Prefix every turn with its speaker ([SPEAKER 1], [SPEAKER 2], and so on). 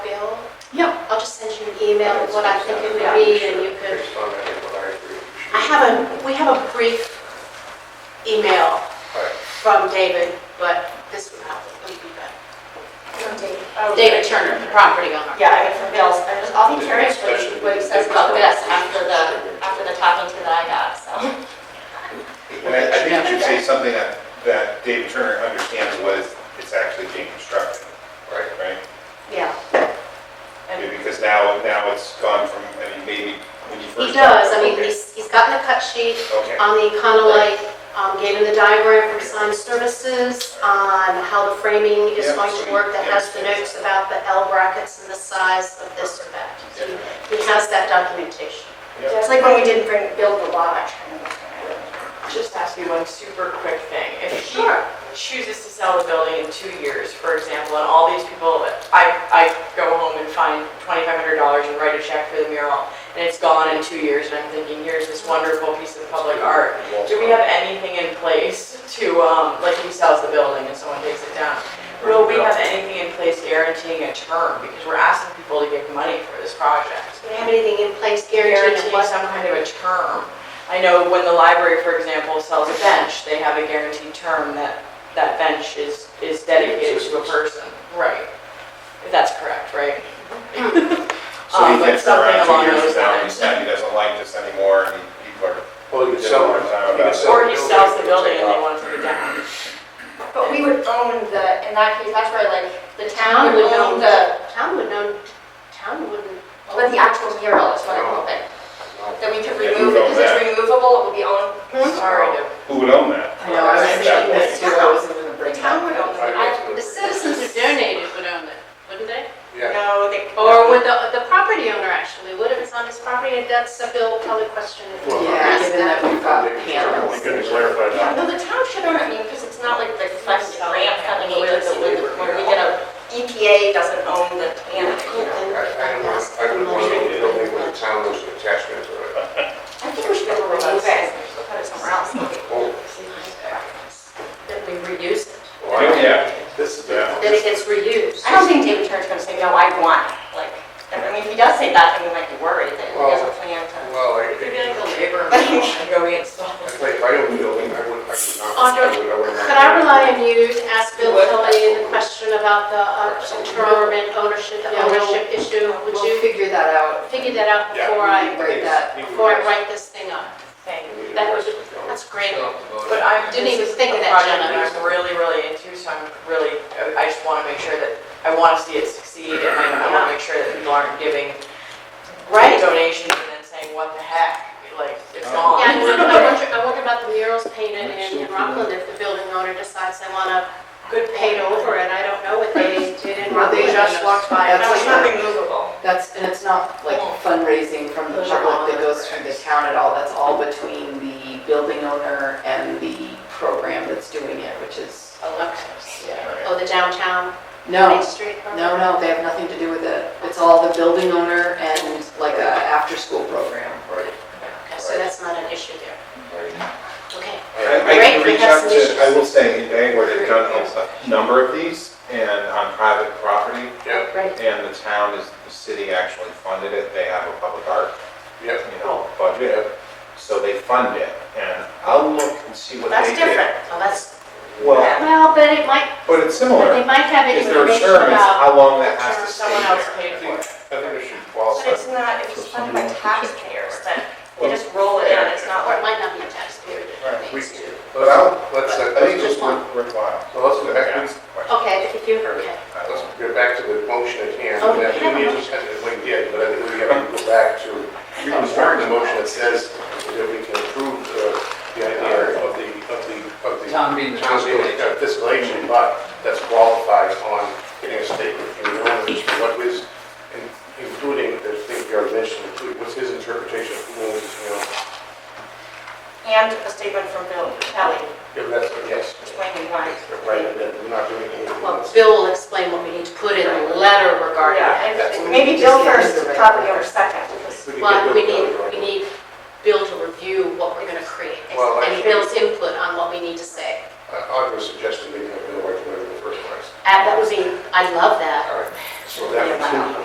[SPEAKER 1] email what I think it would be, and you could,
[SPEAKER 2] Based on that, what I agree.
[SPEAKER 1] I have a, we have a brief email
[SPEAKER 2] Right.
[SPEAKER 1] from David, but this would probably be better.
[SPEAKER 3] Oh,
[SPEAKER 1] David Turner, the property owner.
[SPEAKER 3] Yeah, I get from Bill's, I was, I'll be curious what he, what he says about this after the, after the talking to that I got, so.
[SPEAKER 4] And I I think you should say something that, that David Turner understands was it's actually being constructed,
[SPEAKER 2] Right.
[SPEAKER 4] right?
[SPEAKER 3] Yeah. And
[SPEAKER 4] Because now, now it's gone from, I mean, maybe when you
[SPEAKER 1] He
[SPEAKER 4] first.
[SPEAKER 1] does, I mean,
[SPEAKER 4] Okay.
[SPEAKER 1] he's, he's gotten a cut sheet
[SPEAKER 4] Okay,
[SPEAKER 1] on the Econolite, um, gave him the diagram for sign services, on how the framing is
[SPEAKER 4] Yeah,
[SPEAKER 1] going to
[SPEAKER 4] sweet,
[SPEAKER 1] work, that
[SPEAKER 4] yeah.
[SPEAKER 1] has the notes about the L brackets and the size of this or that. So
[SPEAKER 4] Yeah.
[SPEAKER 1] He has that documentation.
[SPEAKER 3] It's like when we didn't bring, build the lodge.
[SPEAKER 5] Just ask you one super quick thing. If he chooses to sell the building in two years, for example, and all these people, I, I go home and find $2,500 and write a check for the mural, and it's gone in two years, and I'm thinking, here's this wonderful piece of public art. Do we have anything in place to, um, like he sells the building and someone takes it down? Will we have anything in place guaranteeing a term? Because we're asking people to give money for this project
[SPEAKER 1] Do we have anything in place guaranteed
[SPEAKER 5] guarantee
[SPEAKER 1] to what?
[SPEAKER 5] some kind of a term. I know when the library, for example, sells a bench, they have a guaranteed term that that bench is, is dedicated to a person. Right. If that's correct, right?
[SPEAKER 4] so he
[SPEAKER 5] Um, but
[SPEAKER 4] gets
[SPEAKER 5] something
[SPEAKER 4] around
[SPEAKER 5] along
[SPEAKER 4] two years
[SPEAKER 5] those
[SPEAKER 4] from now, and he
[SPEAKER 5] lines.
[SPEAKER 4] said he doesn't like this anymore, and people are,
[SPEAKER 2] Well, Oh, you could sell it. You could sell
[SPEAKER 5] Or he
[SPEAKER 2] the
[SPEAKER 5] sells the building and
[SPEAKER 2] take
[SPEAKER 5] they
[SPEAKER 2] off.
[SPEAKER 5] want it to be down.
[SPEAKER 3] But we would own the, in that case, that's where like, the
[SPEAKER 1] Town
[SPEAKER 3] town would
[SPEAKER 1] would own
[SPEAKER 3] own the,
[SPEAKER 1] Town would know, town wouldn't.
[SPEAKER 3] but the actual mural is what I'm hoping. That we could
[SPEAKER 4] Yeah,
[SPEAKER 3] remove it,
[SPEAKER 4] you own
[SPEAKER 3] because it's
[SPEAKER 4] that.
[SPEAKER 3] removable, it would be owned.
[SPEAKER 5] Sorry to.
[SPEAKER 4] who would own that?
[SPEAKER 6] I know, I was thinking this too, I wasn't gonna bring that
[SPEAKER 1] Town would own
[SPEAKER 6] up.
[SPEAKER 1] it.
[SPEAKER 2] I guess it
[SPEAKER 1] The
[SPEAKER 2] would-
[SPEAKER 1] citizens who donated would own it, wouldn't they?
[SPEAKER 2] Yeah.
[SPEAKER 5] No, they.
[SPEAKER 1] Or would the, the property owner actually, would if it's on his property, that's a bill probably question. if we
[SPEAKER 2] Well,
[SPEAKER 6] Yeah,
[SPEAKER 1] ask
[SPEAKER 6] given that
[SPEAKER 1] that.
[SPEAKER 6] we've got
[SPEAKER 2] We
[SPEAKER 6] panels.
[SPEAKER 2] could clarify that.
[SPEAKER 3] Yeah, no, the town should own it, I mean, because it's not like the flex grant funding agency, when the- when we get a, EPA doesn't own the
[SPEAKER 2] I,
[SPEAKER 3] town.
[SPEAKER 2] I don't want, I don't want to build it with a town as an attachment to it.
[SPEAKER 3] I think we should be able to remove it, and put it somewhere else.
[SPEAKER 2] Oh,
[SPEAKER 1] That we reuse it,
[SPEAKER 2] well, I don't-
[SPEAKER 4] Yeah,
[SPEAKER 2] This is
[SPEAKER 4] yeah.
[SPEAKER 1] that it gets reused.
[SPEAKER 3] I don't think David Turner's gonna say, no, I want, it." like, I mean, if he does say that, then we might be worried that he has a plan to.
[SPEAKER 2] Well, I
[SPEAKER 5] It could
[SPEAKER 2] think,
[SPEAKER 5] be like a labor meeting and go install.
[SPEAKER 2] I think if I owned the building, I would, I would not.
[SPEAKER 1] Andre,
[SPEAKER 2] I would- I would not-
[SPEAKER 1] Could I rely on you to ask Bill Kelly the question about the uh, term and ownership, the
[SPEAKER 6] Yeah, we'll-
[SPEAKER 1] ownership issue? Would
[SPEAKER 6] We'll
[SPEAKER 1] you
[SPEAKER 6] figure that out.
[SPEAKER 1] figure that out
[SPEAKER 2] Yeah,
[SPEAKER 1] before I,
[SPEAKER 6] Break that.
[SPEAKER 1] before I write this thing up?
[SPEAKER 5] Thank you.
[SPEAKER 1] That would, that's great.
[SPEAKER 5] But I
[SPEAKER 1] Didn't even think of that, Jenna.
[SPEAKER 5] I'm really, really into, so I'm really, I just want to make sure that, I want to see it succeed, and I want to make sure that people aren't giving donations and then saying, what the heck, like, it's
[SPEAKER 4] Oh.
[SPEAKER 5] gone.
[SPEAKER 1] Yeah, I wonder, I wonder, I wonder about the murals painted in in Rockland, if the building owner decides they wanna
[SPEAKER 5] Good
[SPEAKER 1] paint over it, I don't know what they did in Rockland.
[SPEAKER 6] They just walked by.
[SPEAKER 1] No,
[SPEAKER 6] That's
[SPEAKER 1] it's
[SPEAKER 6] like-
[SPEAKER 1] not-
[SPEAKER 3] removable.
[SPEAKER 6] That's, and it's not like fundraising from the public that goes through the town at all, that's all between the building owner and the program that's doing it, which is,
[SPEAKER 1] Alexis.
[SPEAKER 6] yeah.
[SPEAKER 1] Oh, the downtown Main
[SPEAKER 6] No,
[SPEAKER 1] Street? program?
[SPEAKER 6] no, no, they have nothing to do with it, it's all the building owner and like a after-school program.
[SPEAKER 2] Right,
[SPEAKER 1] Okay, so that's not an issue there.
[SPEAKER 2] right.
[SPEAKER 1] Okay.
[SPEAKER 4] I I
[SPEAKER 1] Great,
[SPEAKER 4] can
[SPEAKER 1] we
[SPEAKER 4] reach
[SPEAKER 1] have
[SPEAKER 4] out
[SPEAKER 1] some
[SPEAKER 4] to,
[SPEAKER 1] issues.
[SPEAKER 4] I will say, in Bangor, they've done a- a number of these, and on private property,
[SPEAKER 2] Yeah,
[SPEAKER 1] Great.
[SPEAKER 4] and the town is, the city actually funded it, they have a public art
[SPEAKER 2] yeah.
[SPEAKER 4] you know, budget, so they fund it, and I'll look and see what
[SPEAKER 1] That's
[SPEAKER 4] they
[SPEAKER 1] different.
[SPEAKER 4] did.
[SPEAKER 1] Well, that's,
[SPEAKER 4] Well,
[SPEAKER 1] well, but it might,
[SPEAKER 4] but it's
[SPEAKER 1] but they
[SPEAKER 4] similar,
[SPEAKER 1] might have
[SPEAKER 4] is there a
[SPEAKER 1] information
[SPEAKER 4] term, it's
[SPEAKER 1] about,
[SPEAKER 4] how long that has to stay
[SPEAKER 5] Someone else
[SPEAKER 4] there.
[SPEAKER 5] paid for it.
[SPEAKER 2] I think it should
[SPEAKER 3] But
[SPEAKER 2] qualify.
[SPEAKER 3] it's not, if it's funded by taxpayers, then we just roll it in, it's not
[SPEAKER 1] or it might
[SPEAKER 3] like,
[SPEAKER 1] not be a taxpayer that
[SPEAKER 2] We,
[SPEAKER 1] pays to.
[SPEAKER 2] but I'll, let's, uh,
[SPEAKER 4] I
[SPEAKER 2] I think
[SPEAKER 4] think it's
[SPEAKER 2] just one,
[SPEAKER 4] worth- worthwhile.
[SPEAKER 2] so let's go back,
[SPEAKER 4] That's
[SPEAKER 2] let's
[SPEAKER 4] the question.
[SPEAKER 1] Okay, if you, okay.
[SPEAKER 2] get back to the motion at hand.
[SPEAKER 1] Oh, we
[SPEAKER 2] and
[SPEAKER 1] have a
[SPEAKER 2] then we need to- We did, but I think we have to go back to reconstruct the motion that says that we can approve the, the idea of the, of the, of the.
[SPEAKER 7] Town being the
[SPEAKER 2] Town's being a fiscal agent, but that's qualified on getting a statement from the owner as to what was, in- including, the thing you already mentioned, including what's his interpretation of who owns, you know,
[SPEAKER 3] and a statement from Bill Kelly,
[SPEAKER 2] if that's, yes.
[SPEAKER 3] explaining why.
[SPEAKER 2] Right, and then we're not doing anything.
[SPEAKER 1] Well, Bill will explain what we need to put in the letter regarding
[SPEAKER 3] Yeah, and maybe Bill first, property owner second, because
[SPEAKER 2] We can
[SPEAKER 1] Well,
[SPEAKER 2] get
[SPEAKER 1] we
[SPEAKER 2] those
[SPEAKER 1] need,
[SPEAKER 2] done, right?
[SPEAKER 1] we need Bill to review what we're gonna create,
[SPEAKER 2] Well, I
[SPEAKER 1] and
[SPEAKER 2] think-
[SPEAKER 1] Bill's input on what we need to say.
[SPEAKER 2] Uh, Audra suggested making a bill right away in the first place.
[SPEAKER 1] And that would be, I love that.
[SPEAKER 2] All right, so that would.